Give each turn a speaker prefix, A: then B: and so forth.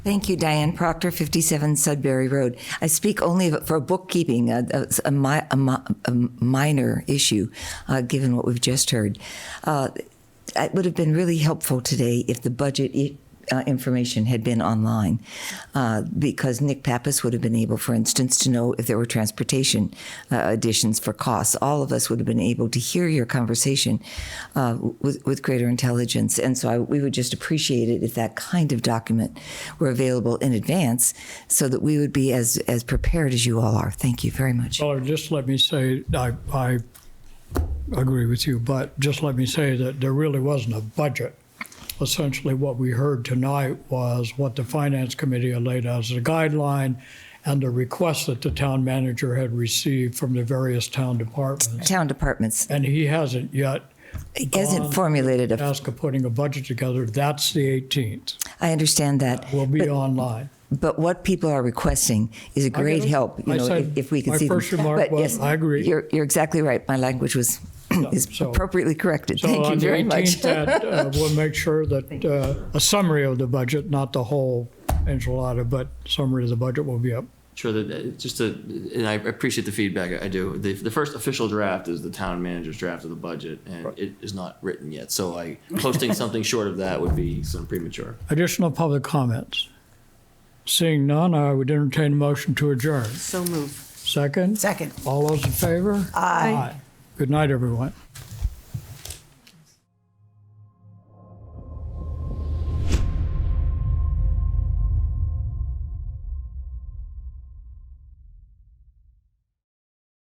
A: Thank you, Diane Proctor, 57 Sudbury Road. I speak only for bookkeeping, a, a, a, mi- a, mi- a minor issue, uh, given what we've just heard. Uh, it would have been really helpful today if the budget i- uh, information had been online, uh, because Nick Pappas would have been able, for instance, to know if there were transportation uh, additions for costs. All of us would have been able to hear your conversation uh, with, with greater intelligence. And so I, we would just appreciate it if that kind of document were available in advance so that we would be as, as prepared as you all are. Thank you very much.
B: Well, just let me say, I, I agree with you, but just let me say that there really wasn't a budget. Essentially, what we heard tonight was what the Finance Committee had laid out as a guideline and the request that the town manager had received from the various town departments.
A: Town departments
B: And he hasn't yet
A: hasn't formulated a,
B: tasked of putting a budget together. That's the 18th.
A: I understand that.
B: We'll be
A: But-
B: online.
A: But what people are requesting is a
B: get
A: great
B: it.
A: help, you
B: I
A: know,
B: said-
A: if, if we can
B: my
A: see them.
B: first remark
A: But
B: was,
A: yes,
B: I agree.
A: You're, you're exactly right. My language was, is
B: so-
A: appropriately corrected.
B: So
A: Thank
B: on
A: you
B: the
A: very much.
B: 18th, that, uh, we'll make sure that uh, a summary of the budget, not the whole enchilada, but summary of the budget will be up.
C: Sure, that- that, just to, and I appreciate the feedback, I do. The, the first official draft is the town manager's draft of the budget, and it is not written yet, so I, posting something short of that would be some premature.
B: Additional public comments? Seeing none, I would entertain a motion to adjourn.
D: So move.
B: Second?
D: Second.
B: All those in favor? Aye. Good night, everyone.